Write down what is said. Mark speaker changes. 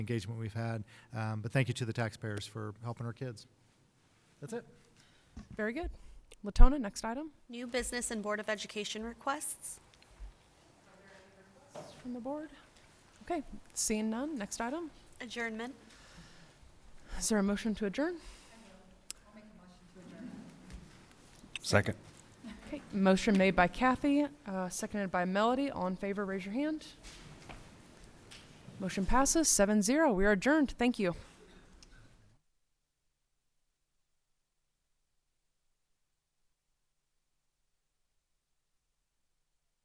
Speaker 1: engagement we've had. Um, But thank you to the taxpayers for helping our kids. That's it.
Speaker 2: Very good. Latona, next item
Speaker 3: New business and Board of Education requests.
Speaker 2: from the board. Okay, seeing none, next item.
Speaker 3: Adjournment.
Speaker 2: Is there a motion to adjourn?
Speaker 4: Second.
Speaker 2: Okay, motion made by Kathy, uh, seconded by Melody. All in favor, raise your hand. Motion passes, seven zero. We are adjourned. Thank you.